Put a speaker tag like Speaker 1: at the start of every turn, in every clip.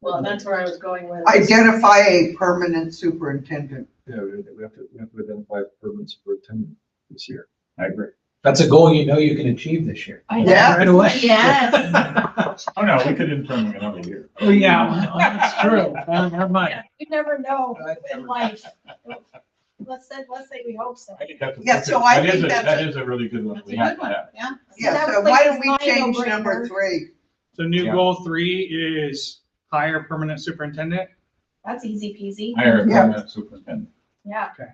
Speaker 1: Well, that's where I was going with.
Speaker 2: Identify a permanent superintendent.
Speaker 3: Yeah, we we have to, we have to identify permits for attendance this year.
Speaker 4: I agree. That's a goal you know you can achieve this year.
Speaker 5: I know.
Speaker 2: Yeah.
Speaker 4: Right away.
Speaker 5: Yes.
Speaker 4: Oh,
Speaker 6: Oh, no, we could intern another year.
Speaker 7: Oh,
Speaker 4: yeah, well, that's true. Uh, Never mind.
Speaker 1: Yeah, You never know
Speaker 4: I
Speaker 1: in life. Let's say, let's say we hope so.
Speaker 6: I think that's a-
Speaker 2: Yeah, so I
Speaker 6: that is
Speaker 2: think
Speaker 6: a-
Speaker 2: that's
Speaker 6: That is a really good one.
Speaker 5: That's
Speaker 6: We
Speaker 5: a
Speaker 6: have
Speaker 5: good
Speaker 6: to
Speaker 5: one,
Speaker 6: have.
Speaker 5: yeah.
Speaker 2: Yeah, so
Speaker 1: That's
Speaker 2: why
Speaker 1: like
Speaker 2: don't we
Speaker 1: a
Speaker 2: change
Speaker 1: no-brainer.
Speaker 2: number three?
Speaker 7: So new
Speaker 6: Yeah.
Speaker 7: goal three is hire permanent superintendent.
Speaker 5: That's easy peasy.
Speaker 6: Hire a
Speaker 2: Yeah.
Speaker 6: permanent superintendent.
Speaker 5: Yeah.
Speaker 7: Okay.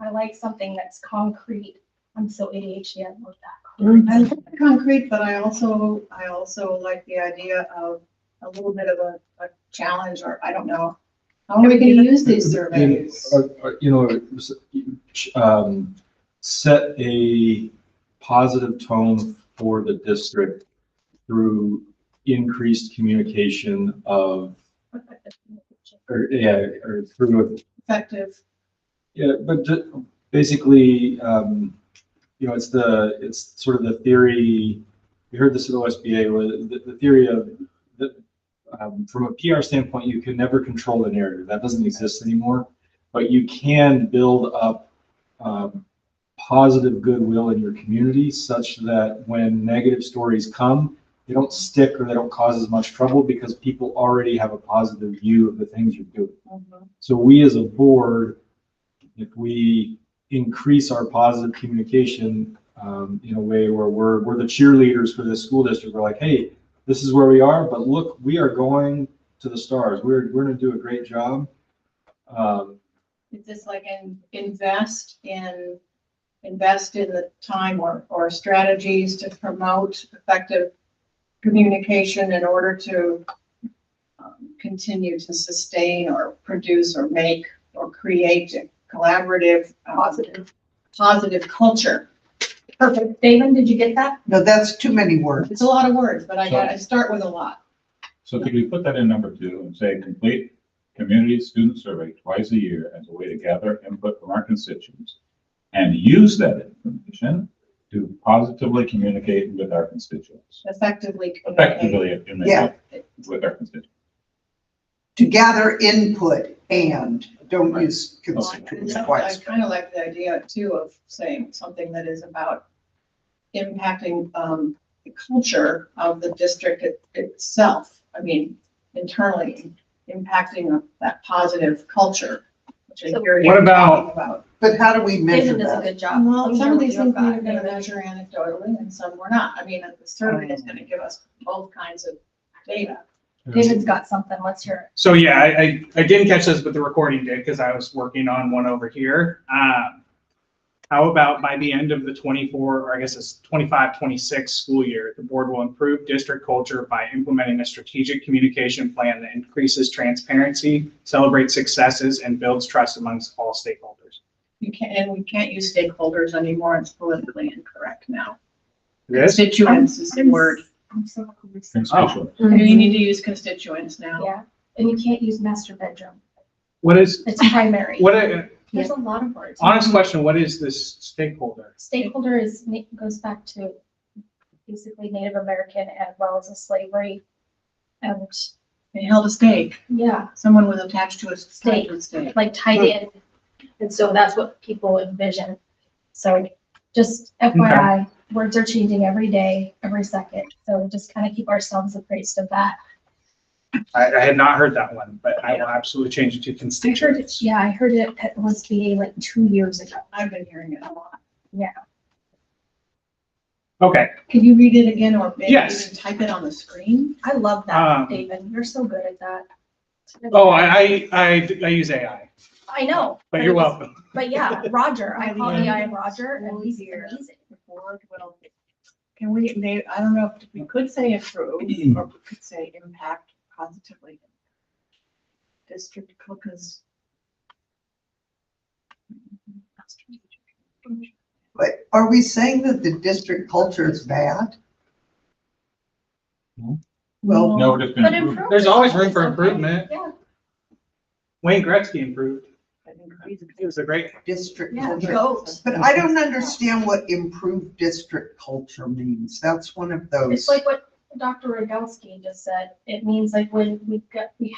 Speaker 5: I like something that's concrete. I'm so ADHD, I love that.
Speaker 1: I like the concrete, but I also, I also like the idea of a little bit of a, a challenge or I don't know. How are we gonna use these surveys?
Speaker 3: Uh, uh, You know, s- um, set a positive tone for the district through increased communication of, or, yeah, or through a
Speaker 1: Effective.
Speaker 3: Yeah, but ju- basically, um, you know, it's the, it's sort of the theory, we heard this at OSBA, where the, the theory of, the, um, from a PR standpoint, you can never control the narrative. That doesn't exist anymore. But you can build up, um, positive goodwill in your community such that when negative stories come, they don't stick or they don't cause as much trouble because people already have a positive view of the things you're doing. So we as a board, if we increase our positive communication um, in a way where we're, we're the cheerleaders for this school district, we're like, hey, this is where we are, but look, we are going to the stars. We're, we're gonna do a great job. Um,
Speaker 1: Is this like in, invest in, invest in the time or, or strategies to promote effective communication in order to um, continue to sustain or produce or make or create a collaborative, um,
Speaker 5: Positive.
Speaker 1: positive culture?
Speaker 5: Perfect. Damon, did you get that?
Speaker 2: No, that's too many words.
Speaker 1: It's a lot of words, but I got, I start with a lot.
Speaker 6: So could we put that in number two and say, complete community student survey twice a year as a way to gather input from our constituents and use that information to positively communicate with our constituents,
Speaker 1: Effectively communicate.
Speaker 6: effectively
Speaker 2: Yeah.
Speaker 6: communicate with our constituents.
Speaker 2: To gather input and, don't use constituents
Speaker 1: I
Speaker 2: twice.
Speaker 1: kind of like the idea too of saying something that is about impacting um, the culture of the district it- itself. I mean, internally impacting that positive culture, which I hear you
Speaker 7: What about-
Speaker 1: talking about.
Speaker 2: But how do we measure
Speaker 5: Damon does a
Speaker 2: that?
Speaker 5: good job.
Speaker 1: Well, some of these things we're
Speaker 5: You've
Speaker 1: gonna
Speaker 5: got-
Speaker 1: measure anecdotally and some we're not. I mean, the survey is gonna give us both kinds of data.
Speaker 5: David's got something. Let's hear
Speaker 7: So yeah, I, I, I didn't catch this, but the recording did because I was working on one over here. Um, how about by the end of the twenty-four, or I guess it's 25-26 school year, the board will improve district culture by implementing a strategic communication plan that increases transparency, celebrates successes, and builds trust amongst all stakeholders.
Speaker 1: You can't, and we can't use stakeholders anymore. It's politically incorrect now.
Speaker 7: This,
Speaker 1: Constituents is the
Speaker 5: I'm-
Speaker 1: word.
Speaker 5: I'm so confused.
Speaker 6: Constituents.
Speaker 1: You
Speaker 5: Mhm.
Speaker 1: need to use constituents now.
Speaker 5: Yeah. And you can't use master bedroom.
Speaker 7: what is,
Speaker 5: It's primary.
Speaker 7: what, a-
Speaker 5: There's a lot of words.
Speaker 7: honest question, what is this stakeholder?
Speaker 5: Stakeholder is, na- goes back to basically Native American as well as a slavery. And
Speaker 1: They held a stake.
Speaker 5: yeah,
Speaker 1: Someone was attached to a
Speaker 5: Stake.
Speaker 1: stake. stake.
Speaker 5: like tied in.
Speaker 7: Hmm.
Speaker 5: And so that's what people envision. So just FYI, words are changing every day, every second. So just kind of keep ourselves appraised of that.
Speaker 7: I, I had not heard that one, but I will absolutely change it to
Speaker 5: I heard
Speaker 7: constituents.
Speaker 5: it, yeah, I heard it at OSBA like two years ago.
Speaker 1: I've been hearing it a lot.
Speaker 7: Okay,
Speaker 1: Can you read it again or maybe
Speaker 7: Yes.
Speaker 1: even type it on the screen?
Speaker 5: I love
Speaker 7: Um,
Speaker 5: that, David. You're so good at that.
Speaker 7: oh, I, I, I, I use AI,
Speaker 5: I know.
Speaker 7: but you're
Speaker 5: it was-
Speaker 7: welcome.
Speaker 5: But yeah, Roger, I call
Speaker 1: Yeah.
Speaker 5: AI Roger and he's amazing.
Speaker 1: The board will- Can we, may, I don't know if we could say improve or we could say impact positively. District, because.
Speaker 2: But are we saying that the district culture is bad?
Speaker 3: No.
Speaker 2: Well,
Speaker 6: No, we're just
Speaker 5: But
Speaker 6: gonna improve.
Speaker 5: improvement
Speaker 7: There's always room
Speaker 5: is
Speaker 7: for
Speaker 5: okay.
Speaker 7: improvement.
Speaker 5: Yeah,
Speaker 7: Wayne Gretzky improved.
Speaker 1: I think we-
Speaker 7: He was a great,
Speaker 2: district
Speaker 1: Yeah,
Speaker 2: culture.
Speaker 1: goat.
Speaker 2: But I don't understand what improved district culture means. That's one of those.
Speaker 5: it's like what Dr. Rogowski just said. It means like when we got, we